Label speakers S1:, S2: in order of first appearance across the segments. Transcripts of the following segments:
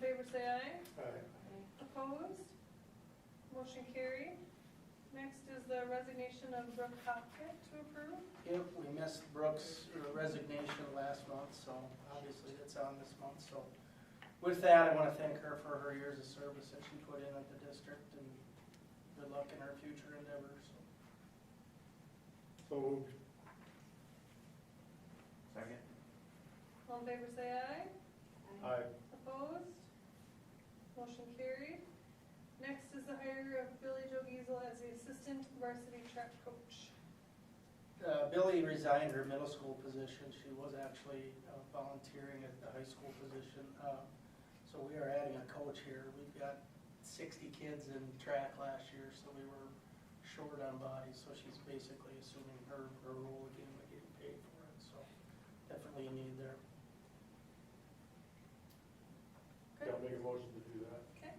S1: favor say aye.
S2: Aye.
S1: Opposed? Motion carried. Next is the resignation of Brooke Hopkett to approve.
S3: Yep, we missed Brooks' resignation last month, so obviously it's on this month, so. With that, I want to thank her for her years of service that she put in at the district and good luck in her future endeavors.
S2: So moved.
S4: Second?
S1: All in favor say aye.
S2: Aye.
S1: Opposed? Motion carried. Next is the hire of Billy Joe Giesel as the assistant varsity track coach.
S3: Uh, Billy resigned her middle school position. She was actually uh, volunteering at the high school position. Uh, So we are adding a coach here. We've got 60 kids in track last year, so we were short on bodies. So she's basically assuming her, her role again, but getting paid for it, so definitely a need there.
S1: Okay.
S2: Yeah, make a motion to do that.
S1: Okay,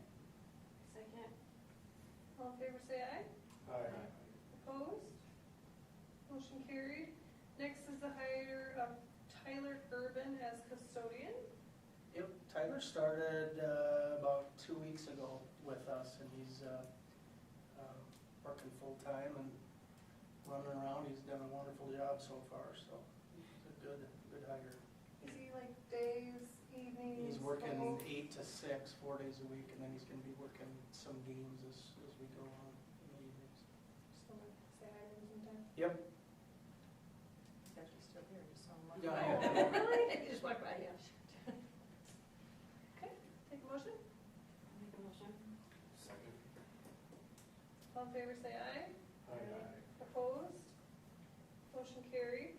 S5: Second.
S1: all in favor say aye.
S2: Aye.
S1: Opposed? Motion carried. Next is the hire of Tyler Urban as custodian.
S3: Yep, Tyler started uh, about two weeks ago with us, and he's uh, um, working full-time and running around. He's done a wonderful job so far, so it's a good, good hire.
S1: Is he like days, evenings?
S3: He's working
S1: both?
S3: eight to six, four days a week, and then he's gonna be working some games as, as we go on in the evenings.
S1: Just wanna say hi to him sometime.
S3: Yep.
S5: He's actually still here, just so much.
S3: Yeah, I am.
S5: Really? You just walked by, yeah.
S1: Okay, take a motion.
S5: Make a motion.
S4: Second.
S1: All in favor, say aye.
S2: Aye.
S1: Opposed? Motion carried.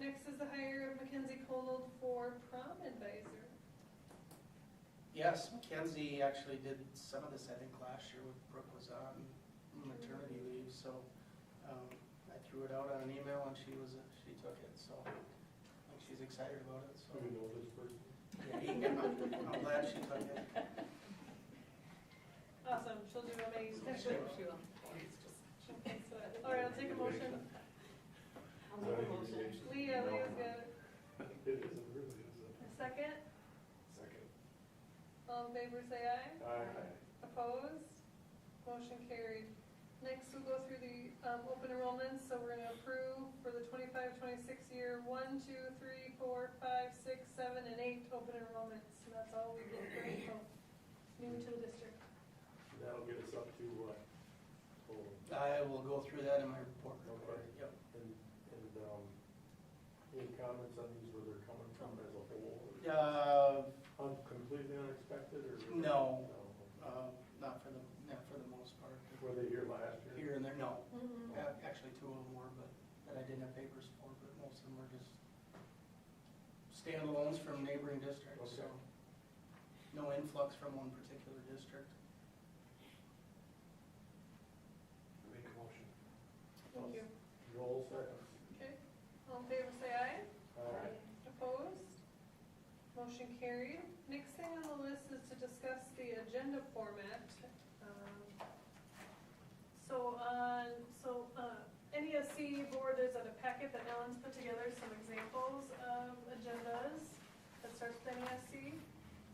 S1: Next is the hire of Mackenzie Conold for prom advisor.
S3: Yes, Mackenzie actually did some of this, I think, last year when Brooke was on maternity leave, so um, I threw it out on an email and she was, she took it, so I think she's excited about it,
S2: Do we
S3: so.
S2: know this person?
S3: Yeah, I'm glad she took it.
S1: Awesome, she'll do amazing. Okay, so, All right, I'll take a motion.
S5: I'll make a motion.
S1: Leah, Leah's got it.
S2: It is, it really is.
S1: A second?
S2: Second.
S1: All in favor, say aye.
S2: Aye.
S1: Opposed? Motion carried. Next, we'll go through the um, open enrollments, so we're gonna approve for the 25-26 year, one, two, three, four, five, six, seven, and eight open enrollments, and that's all we did for the new to the district.
S2: That'll get us up to what? Oh,
S3: I will go through that in my report.
S2: Okay.
S3: Yep.
S2: And, and, um, any comments on these, where they're coming from as a whole? or
S3: Uh,
S2: un- Completely unexpected or?
S3: No. uh, Not for the, not for the most part.
S2: Were they here last year?
S3: Here and there, no.
S1: Mm-mm.
S3: Uh, Actually, two of them were, but, that I didn't have papers for, but most of them were just standalones from neighboring districts, so.
S2: Okay.
S3: No influx from one particular district.
S4: Make a motion.
S1: Thank you.
S2: Joel seconds.
S1: Okay, all in favor, say aye.
S2: Aye.
S1: Opposed? Motion carried. Next thing on the list is to discuss the agenda format. Um, So on, so uh, NESC board, there's a packet that Ellen's put together, some examples of agendas that starts with NESC.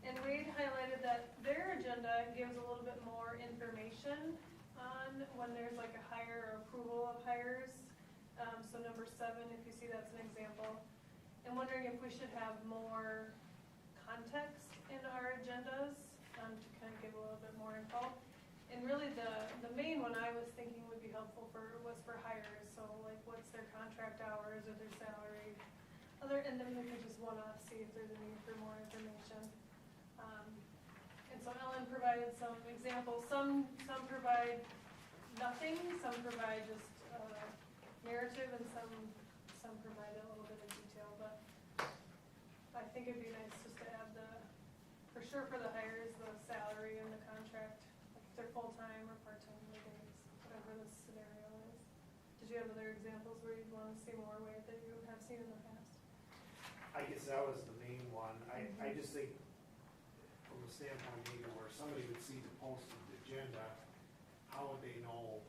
S1: And Wade highlighted that their agenda gives a little bit more information on when there's like a hire or approval of hires. Um, So number seven, if you see, that's an example. I'm wondering if we should have more context in our agendas um, to kind of give a little bit more info. And really, the, the main one I was thinking would be helpful for, was for hires, so like, what's their contract hours or their salary? Other, and then we could just one-off see if there's a need for more information. Um, And so Ellen provided some examples, some, some provide nothing, some provide just uh, narrative, and some, some provide a little bit of detail, but I think it'd be nice just to add the, for sure for the hires, the salary and the contract, like if they're full-time or part-time, like it's whatever the scenario is. Did you have other examples where you'd want to see more where that you have seen in the past?
S6: I guess that was the main one. I, I just think from a standpoint maybe where somebody would see the posted agenda, how would they know